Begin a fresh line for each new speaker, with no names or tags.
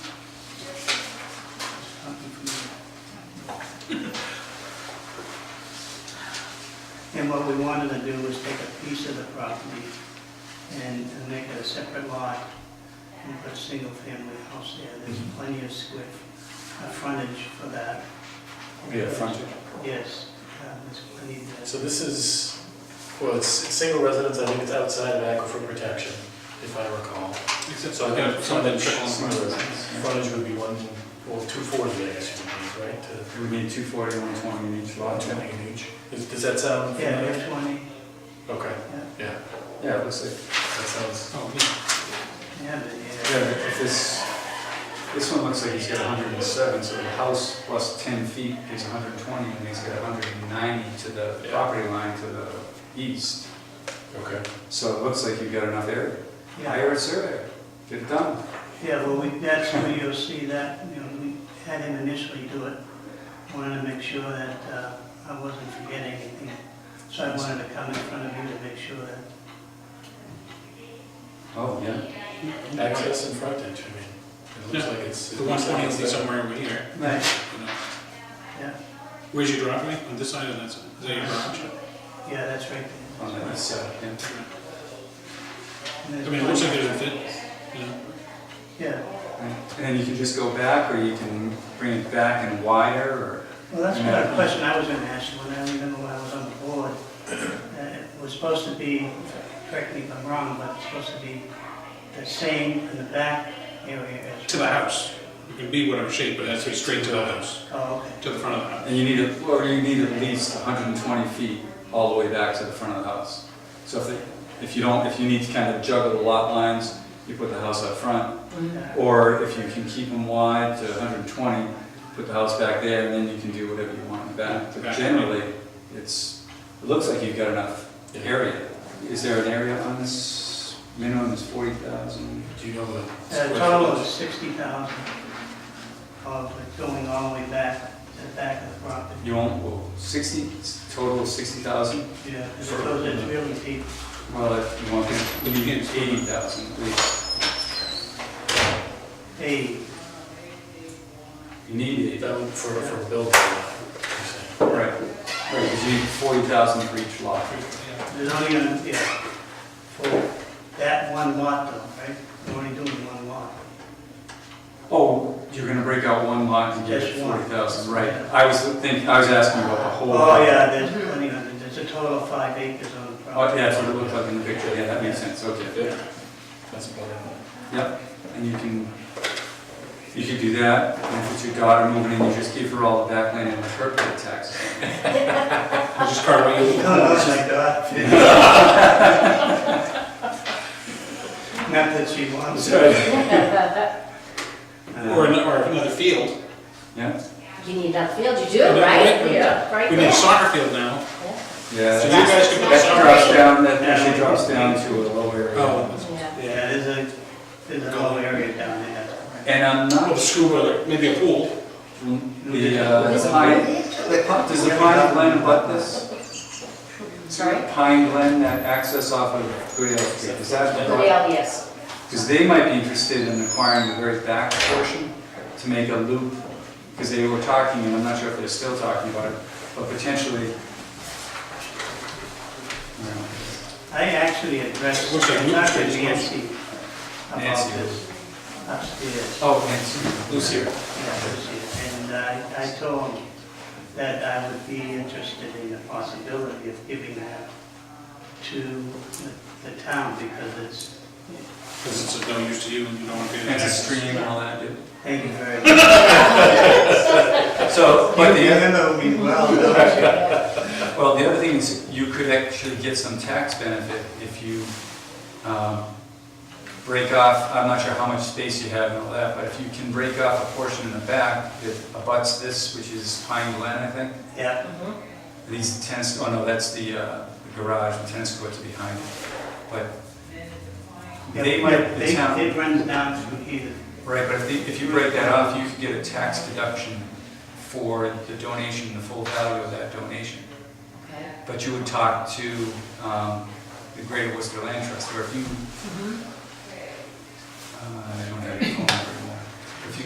And what we wanted to do was take a piece of the property and and make it a separate lot and put a single-family house there. There's plenty of square, uh, frontage for that.
Yeah, frontage.
Yes, uh, there's plenty there.
So this is, well, it's it's single residence, I think it's outside of aquifer protection, if I recall.
Except
So I think
some of them
frontage,
trickle in front of us.
frontage would be one, well, two forty, I guess you would need, right? to-
It would be 240, 120 in each lot.
to make an inch. Does does that sound
Yeah,
familiar?
there's one,
Okay,
yeah,
yeah,
Yeah, it looks like,
that sounds,
oh, yeah.
yeah, but, yeah.
Yeah, but if this, this one looks like he's got 107, so the house plus 10 feet is 120, and he's got 190 to the
Yeah.
property line to the east.
okay.
So it looks like you've got enough area.
Yeah,
Hire a surveyor, get it done.
yeah, well, we, that's where you'll see that, you know, we had him initially do it. Wanted to make sure that uh, I wasn't forgetting anything. So I wanted to come in front of you to make sure that
Oh, yeah.
Access and frontage, I mean, it looks
Yeah.
like it's. it
The one
looks like
twenty
it's
will be
there.
somewhere over here.
Right,
you know.
yeah,
Where's your driveway? On this side or that side? Is that your garage?
yeah, that's right.
On the east side, yeah.
And
I
there's
mean, it looks like
one-
there's a fit, you know.
Yeah,
And then you can just go back, or you can bring it back and wider, or,
well, that's what a question I was gonna ask you when I remember when I was on the board. Uh, It was supposed to be, correct me if I'm wrong, but it's supposed to be the same in the back area as.
To the house. It can be whatever shape, but that's straight to the house,
Oh, okay,
to the front of the house.
and you need, a- or you need at least 120 feet all the way back to the front of the house. So if, it- if you don't, if you need to kind of juggle the lot lines, you put the house up front,
Yeah.
or if you can keep them wide to 120, put the house back there, and then you can do whatever you want in the back. But
Back.
generally, it's, it looks like you've got enough area. Is there an area on this, minimum is 40,000?
Do you know the?
Uh,
square
total
footage?
of sixty thousand of it going all the way back to the back of the property.
You own, well, sixty, total of sixty thousand?
Yeah, because it's really deep.
Well, if you want, you need eighty thousand, please.
Hey,
You need eighty.
That would, for, for building, you're
Right, right, because you need forty thousand for each lot.
there's only, gonna- yeah, for that one lot though, right? We're only doing one lot.
Oh, you're gonna break out one lot and get
Just one.
forty thousand, right. I was thinking, I was asking about the whole lot.
Oh, yeah, there's plenty of it. There's a total of five acres on the
Oh,
property.
yeah, that's what it looked like in the picture, yeah, that makes sense, okay.
saying. Yeah. That's about it.
Yep, and you can, you could do that, and if it's your daughter moving in, you just give her all the backland and let her pay the taxes.
I'll just carve out your little
Oh,
corners.
my God. Not that she wants it.
Or an- or another field.
Yeah?
You need that field, you
Yeah,
do, right?
right.
Yeah, right
We need a
there.
soccer field now.
Yeah,
So you
that-
guys can put
that
soccer.
drops down, that actually drops down to a low area.
Oh,
Yeah.
Yeah, there's a, there's a whole area down there.
And I'm
or a
not,
scuba, or maybe a pool.
the, uh, the pine, the pi- does the Pine Glen abut this?
Sorry?
Pine Glen, that access off of Goodale Street, is that?
The LDS.
Because they might be interested in acquiring the very back portion to make a loop, because they were talking, and I'm not sure if they're still talking about it, but potentially. you know,
I actually addressed,
Looks like
not with
Luke's
Nancy, about
Nancy.
this upstairs.
Oh, and Lucy,
Yeah, Lucy. And I, I told him that I would be interested in the possibility of giving that to the- the town because it's,
Because it's of no use to you and you don't want to be in
and
the
it's a
access.
stream and all that, dude.
thank you very much.
So, but the
You
other.
remember me well, don't you?
Well, the other thing is, you could actually get some tax benefit if you um, break off, I'm not sure how much space you have and all that, but if you can break off a portion in the back that abuts this, which is Pine Glen, I think,
Yeah,
these tennis, oh no, that's the uh, the garage, the tennis courts are behind it, but
Yeah,
they might,
but
the town,
It runs down through here.
right, but if they- if you break that off, you could get a tax deduction for the donation, the full value of that donation.
Okay.
But you would talk to um, the Greater Worcester Land Trust, or if you, uh, I don't have your phone number.